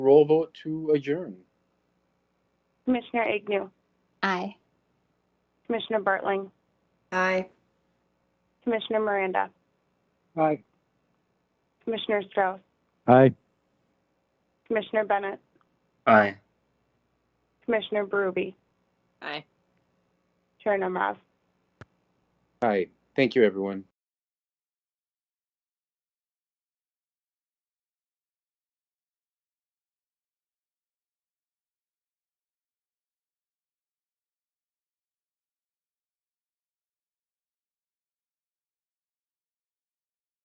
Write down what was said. Roll vote to adjourn. Commissioner Agnew, Aye. Commissioner Bartling, Aye. Commissioner Miranda, Aye. Commissioner Strauss, Aye. Commissioner Bennett, Aye. Commissioner Berube, Aye. Chair Nemeroff. Aye. Thank you, everyone.